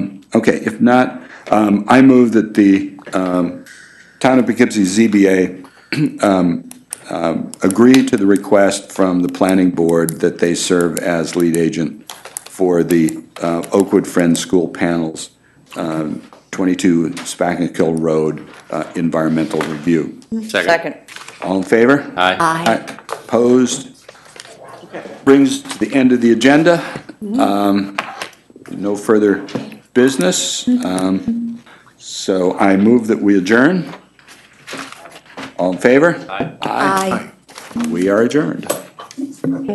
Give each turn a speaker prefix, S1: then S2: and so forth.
S1: If not, um, I move that the, um, Town of Poughkeepsie ZBA, um, um, agree to the request from the planning board that they serve as lead agent for the, uh, Oakwood Friends School Panels, um, twenty-two Spackenkill Road, uh, environmental review.
S2: Second.
S1: All in favor?
S2: Aye.
S1: Aye. Opposed? Brings to the end of the agenda. Um, No further business. Um, So I move that we adjourn. All in favor?
S2: Aye.
S1: We are adjourned.